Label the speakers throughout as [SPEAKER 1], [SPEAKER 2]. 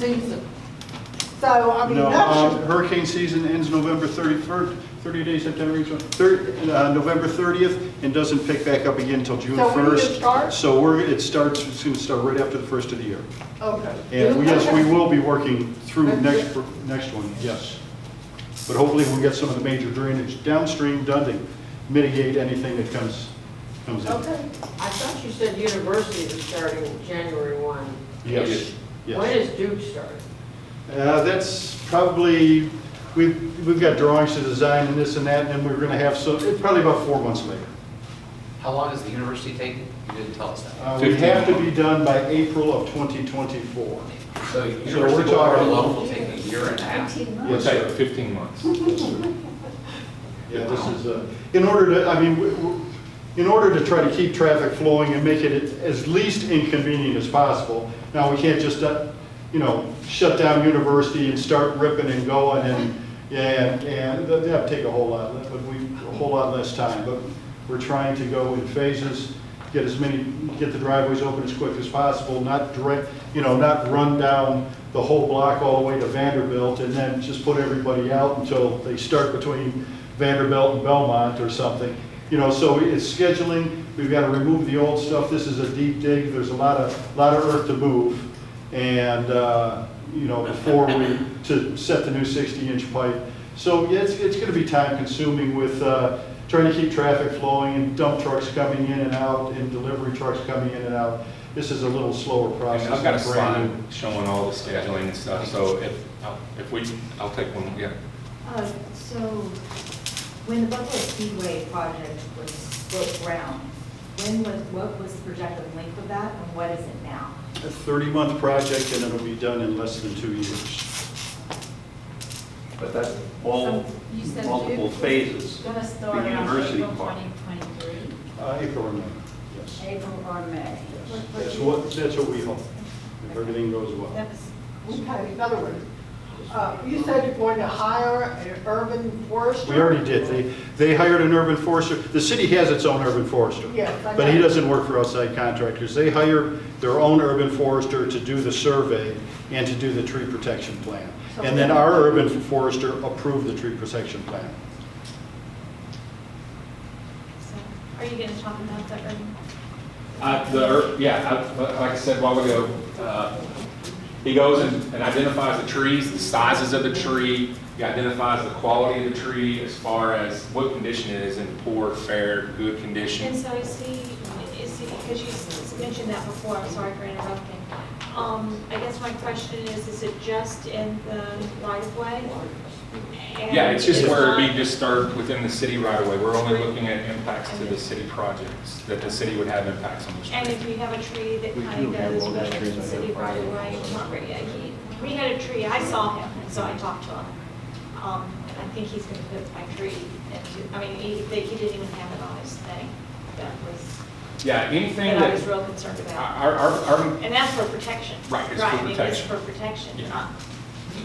[SPEAKER 1] season. So, I mean,
[SPEAKER 2] No,
[SPEAKER 1] that
[SPEAKER 2] um,
[SPEAKER 1] should,
[SPEAKER 2] hurricane season ends November 31st, 30 days, September, 30, uh, November 30th, and doesn't pick back up again until June
[SPEAKER 1] So
[SPEAKER 2] 1st.
[SPEAKER 1] when does it start?
[SPEAKER 2] So we're, it starts, it's going to start right after the first of the year.
[SPEAKER 1] okay.
[SPEAKER 2] And we- yes, we will be working through next, next one, yes. But hopefully we'll get some of the major drainage downstream done to mitigate anything that comes, comes in.
[SPEAKER 1] Okay.
[SPEAKER 3] I thought you said university is starting January 1.
[SPEAKER 2] Yes,
[SPEAKER 3] When is
[SPEAKER 2] yes.
[SPEAKER 3] Duke starting?
[SPEAKER 2] Uh, That's probably, we've, we've got drawings to design and this and that, and then we're going to have, so, probably about four months later.
[SPEAKER 4] How long is the university taking? You didn't tell us that.
[SPEAKER 2] Uh, We have to be done by April of 2024.
[SPEAKER 4] So
[SPEAKER 2] we're
[SPEAKER 4] University Board
[SPEAKER 2] talking-
[SPEAKER 4] alone will take a year and a half.
[SPEAKER 2] Yes,
[SPEAKER 5] It's like
[SPEAKER 2] sir.
[SPEAKER 5] 15 months.
[SPEAKER 2] Yes, sir. Yeah, this is, uh, in order to, I mean, w- w- in order to try to keep traffic flowing and make it as least inconvenient as possible, now, we can't just, uh, you know, shut down university and start ripping and going and, and, and that- that'd take a whole lot, le- but we, a whole lot less time. But we're trying to go in phases, get as many, get the driveways open as quick as possible, not direct, you know, not run down the whole block all the way to Vanderbilt and then just put everybody out until they start between Vanderbilt and Belmont or something. You know, so it's scheduling, we've got to remove the old stuff, this is a deep dig, there's a lot of, lot of earth to move. And, uh, you know, before we, to set the new 60-inch pipe. So yeah, it's, it's going to be time-consuming with uh, trying to keep traffic flowing and dump trucks coming in and out and delivery trucks coming in and out. This is a little slower process.
[SPEAKER 5] And I've got a
[SPEAKER 2] than brand
[SPEAKER 5] slide showing all the scheduling and stuff, so if, if we, I'll take one, yeah.
[SPEAKER 6] Uh, So, when the Buffalo Speedway project was broke ground, when was, what was the projected length of that, and what is it now?
[SPEAKER 2] new. A 30-month project and it'll be done in less than two years.
[SPEAKER 7] But that's all
[SPEAKER 8] You said
[SPEAKER 7] multiple
[SPEAKER 8] Duke was
[SPEAKER 7] phases.
[SPEAKER 8] Gonna
[SPEAKER 7] The
[SPEAKER 8] start around
[SPEAKER 7] university
[SPEAKER 8] April
[SPEAKER 7] part.
[SPEAKER 8] 2023,
[SPEAKER 2] Uh, April or May, yes.
[SPEAKER 8] April or May.
[SPEAKER 2] Yes. That's what, that's what we hope, if everything goes well.
[SPEAKER 6] That was-
[SPEAKER 1] Okay, in other words, uh, you said you're going to hire an urban forester?
[SPEAKER 2] We already did, they, they hired an urban forester, the city has its own urban forester.
[SPEAKER 1] Yes, I
[SPEAKER 2] But he
[SPEAKER 1] know.
[SPEAKER 2] doesn't work for outside contractors, they hire their own urban forester to do the survey and to do the tree protection plan.
[SPEAKER 1] So-
[SPEAKER 2] And then our urban forester approved the tree protection plan.
[SPEAKER 8] So, Are you gonna talk about that, or?
[SPEAKER 5] Uh, the, er- yeah, I- li- like I said a while ago, uh, he goes and and identifies the trees, the sizes of the tree, he identifies the quality of the tree as far as what condition it is in, poor, fair, good
[SPEAKER 8] And
[SPEAKER 5] condition.
[SPEAKER 8] so is he, is he, because you s- mentioned that before, I'm sorry for interrupting. Um, I guess my question is, is it just in the right of way? And
[SPEAKER 5] Yeah, it's just
[SPEAKER 8] it's
[SPEAKER 5] where we
[SPEAKER 8] not-
[SPEAKER 5] just start within the city right away, we're only looking at impacts to the city projects, that the city would have impacts on the
[SPEAKER 8] And
[SPEAKER 5] street.
[SPEAKER 8] if you have a tree that
[SPEAKER 7] We
[SPEAKER 8] kind
[SPEAKER 7] do
[SPEAKER 8] of
[SPEAKER 7] have
[SPEAKER 8] goes
[SPEAKER 7] all those
[SPEAKER 8] with
[SPEAKER 7] trees
[SPEAKER 8] the city right of way, it's not really, I can't- we had a tree, I saw him, and so I talked to him. Um, and I think he's gonna put my tree into, I mean, he, they- he didn't even have it on his thing, that was,
[SPEAKER 5] Yeah, anything
[SPEAKER 8] that I was
[SPEAKER 5] that,
[SPEAKER 8] real concerned about.
[SPEAKER 5] our, our, our
[SPEAKER 8] And that's for protection.
[SPEAKER 5] Right, it's for
[SPEAKER 8] I mean, it's
[SPEAKER 5] protection.
[SPEAKER 8] for protection,
[SPEAKER 5] Yeah.
[SPEAKER 8] not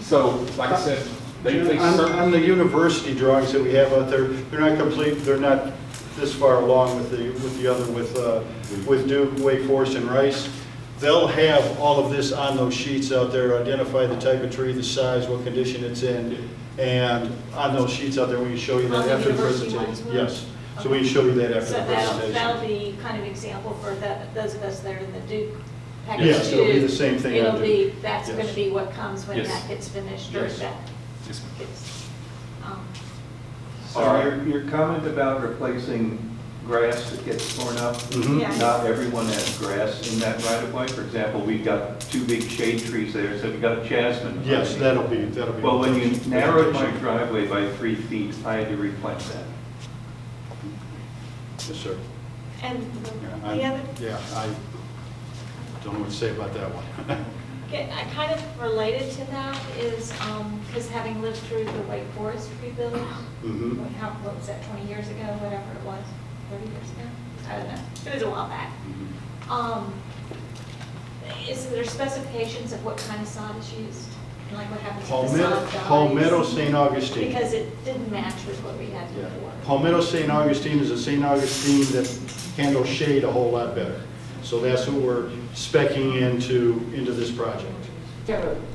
[SPEAKER 5] So, like I said, they, they
[SPEAKER 2] On,
[SPEAKER 5] certainly,
[SPEAKER 2] on the university drawings that we have out there, they're not complete, they're not this far along with the, with the other, with, uh, with Duke, Wake Forest, and Rice. They'll have all of this on those sheets out there, identify the type of tree, the size, what condition it's in, and on those sheets out there, we can show you
[SPEAKER 8] On
[SPEAKER 2] that
[SPEAKER 8] the
[SPEAKER 2] after the
[SPEAKER 8] university ones
[SPEAKER 2] presentation.
[SPEAKER 8] will?
[SPEAKER 2] Yes, so we can show you that after
[SPEAKER 8] So
[SPEAKER 2] the
[SPEAKER 8] that'll, that'll
[SPEAKER 2] presentation.
[SPEAKER 8] be kind of example for the, those of us that are in the Duke package two.
[SPEAKER 2] Yes, it'll be the same thing on
[SPEAKER 8] It'll be,
[SPEAKER 2] Duke.
[SPEAKER 8] that's
[SPEAKER 2] Yes.
[SPEAKER 8] gonna be what comes when
[SPEAKER 5] Yes.
[SPEAKER 8] that gets finished or
[SPEAKER 5] Yes.
[SPEAKER 8] that
[SPEAKER 5] Yes, ma'am.
[SPEAKER 8] gets, um,
[SPEAKER 7] So your, your comment about replacing grass that gets torn up,
[SPEAKER 2] Mhm.
[SPEAKER 8] Yeah.
[SPEAKER 7] not everyone has grass in that right of way. For example, we've got two big shade trees there, so we've got jasmine.
[SPEAKER 2] Yes, that'll be, that'll be.
[SPEAKER 7] Well, when you narrowed my driveway by three feet, I had to replant that.
[SPEAKER 2] Yes, sir.
[SPEAKER 8] and
[SPEAKER 2] Yeah, I-
[SPEAKER 8] the other,
[SPEAKER 2] Yeah, I don't know what to say about that one.
[SPEAKER 8] get- I kind of related to that is, um, because having lived through the Wake Forest rebuild,
[SPEAKER 2] Mhm.
[SPEAKER 8] What, how, what was that, 20 years ago, whatever it was, 30 years ago? I don't know, it was a while back. Um, Is there specifications of what kind of sod is used? And like what happens if the
[SPEAKER 2] Palmetto,
[SPEAKER 8] sod dies?
[SPEAKER 2] Palmetto St. Augustine.
[SPEAKER 8] Because it didn't match with what we had
[SPEAKER 2] Yeah.
[SPEAKER 8] before.
[SPEAKER 2] Palmetto St. Augustine is a St. Augustine that handles shade a whole lot better. So that's what we're specing into, into this project.
[SPEAKER 3] Kevin,